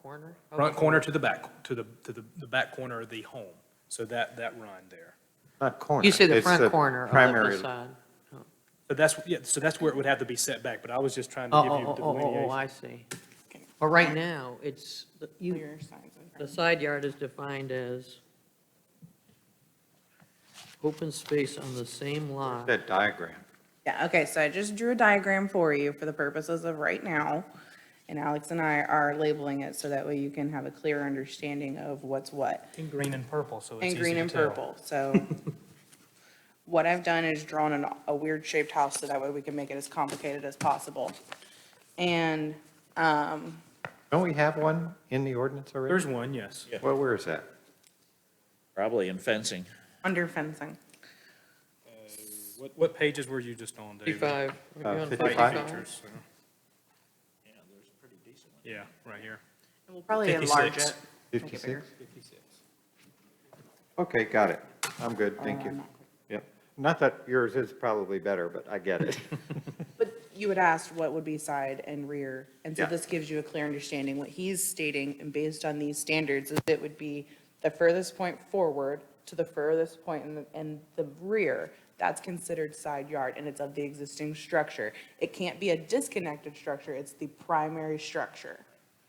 corner? Front corner to the back, to the, to the, the back corner of the home. So that, that run there. Not corner. You say the it's front corner of the primary- facade. But that's, yeah, so that's where it would have to be set back, but I was just trying Oh, to give you oh, the oh, oh, oh, delineation. I see. But right now, it's, the- you, Clear signs in the front. side yard is defined as open space on the same lot. That diagram. Yeah, okay, so I just drew a diagram for you for the purposes of right now. And Alex and I are labeling it so that way you can have a clear understanding of what's what. In green and purple, so And green and purple, so what I've done is drawn an, a weird shaped house, so that way we can make it as complicated as possible. And, um, Don't we have one in the ordinance already? There's one, yes. Well, where is that? Probably in fencing. under fencing, What, what pages were you just on, David? 55. Are you Uh, on 55? Features, so. Yeah, right here. and we'll probably enlarge it. 56. Make it bigger. 56? Okay, got it. I'm good, thank I'm you. not quick. Yep. Not that yours is probably better, but I get it. But you had asked what would be side and rear, and so Yeah. this gives you a clear understanding, what he's stating, and based on these standards, is it would be the furthest point forward to the furthest point in the, in the rear, that's considered side yard, and it's of the existing structure. It can't be a disconnected structure, it's the primary structure.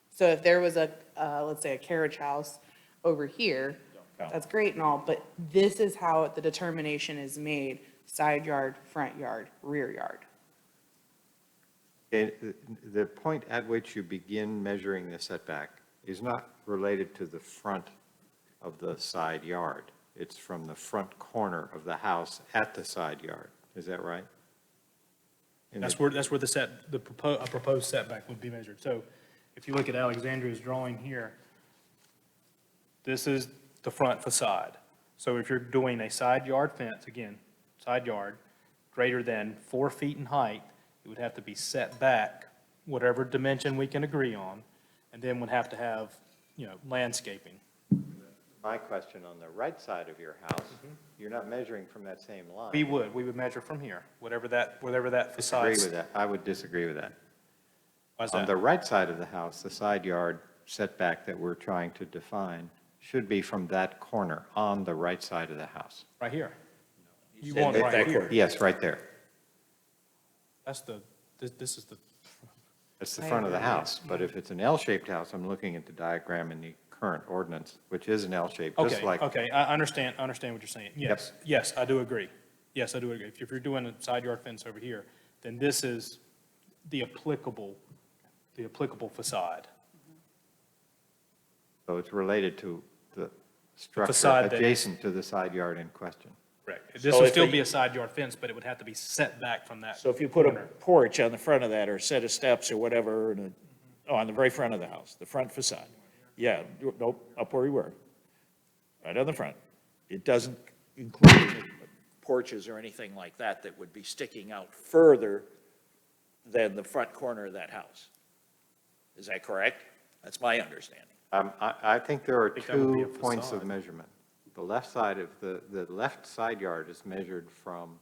So if there was a, uh, let's say a carriage house over here, that's great and all, but this is how the determination is made, side yard, front yard, rear yard. It- The point at which you begin measuring the setback is not related to the front of the side yard. It's from the front corner of the house at the side yard. Is that right? In the- That's where, that's where the set, the proposed, a proposed setback would be measured. So if you look at Alexandria's drawing here, this is the front facade. So if you're doing a side yard fence, again, side yard, greater than four feet in height, it would have to be set back whatever dimension we can agree on, and then would have to have, you know, landscaping. My question, on the right side of your house, you're not measuring from that same line. Mm-hmm. We would, we would measure from here, whatever that, whatever that Agree facade. with that. I would disagree with that. Why's On that? the right side of the house, the side yard setback that we're trying to define should be from that corner on the right side of the house. Right here. You said want that right that here. corner. Yes, right there. That's the, this, this is the, That's the I front of the agree. house. But if it's an L-shaped house, I'm looking at the diagram in the current ordinance, which is an L-shape, just okay, like, okay, I understand, I understand what you're saying. Yes, yes, I do agree. Yes, I do agree. If you're doing a side yard fence over here, then this is the applicable, the applicable facade. so it's related to the structure facade that- adjacent to the side yard in question. Correct. This So would if still they- be a side yard fence, but it would have to be set back from that. So if you put a corner. porch on the front of that, or a set of steps or whatever, and a, oh, on the very front of the house, the front facade. Yeah, you- nope, up where you were, right on the front. It doesn't include porches or anything like that that would be sticking out further than the front corner of that house. Is that correct? That's my understanding. Um, I, I think there are think that would be two a points of facade. measurement. The left side of the, the left side yard is measured from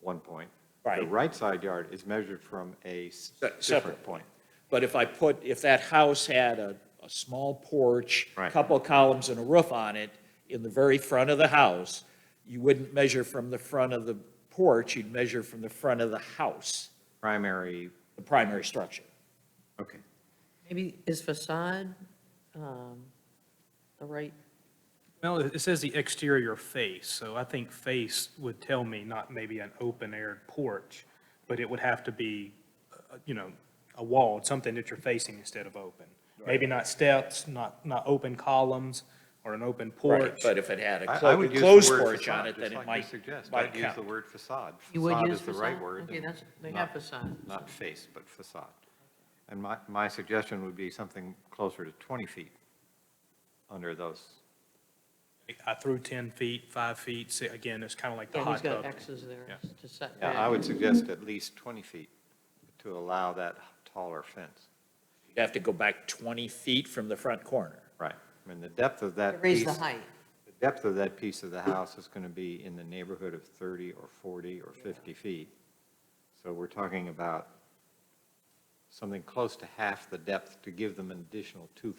one point. The Right. right side yard is measured from a s- Se- different separate. point. But if I put, if that house had a, a small porch, Right. couple columns and a roof on it, in the very front of the house, you wouldn't measure from the front of the porch, you'd measure from the front of the house, Primary, the primary structure. okay. Maybe is facade, um, the right, Well, it it says the exterior face, so I think face would tell me not maybe an open-air porch, but it would have to be, uh, you know, a wall, something that you're facing instead of open. Maybe not steps, not, not open columns, or an open porch. But if it had a I- I clo- would use the closed word porch facade, on it, just then like it you might, suggest. might I'd use the count. word facade. You would Facade use is the right facade? word. Okay, and that's- they not- have facade. Not face, but facade. And my, my suggestion would be something closer to 20 feet under those. I threw 10 feet, 5 feet, si- again, it's kind of like the yeah, he's hot tub. got X's there Yeah. to set Yeah, back. I would suggest at least 20 feet to allow that taller fence. you'd have to go back 20 feet from the front corner. Right. I mean, the depth of To that Raise piece, the the height. depth of that piece of the house is going to be in the neighborhood of 30 or 40 or 50 feet. So we're talking about something close to half the depth to give them an additional two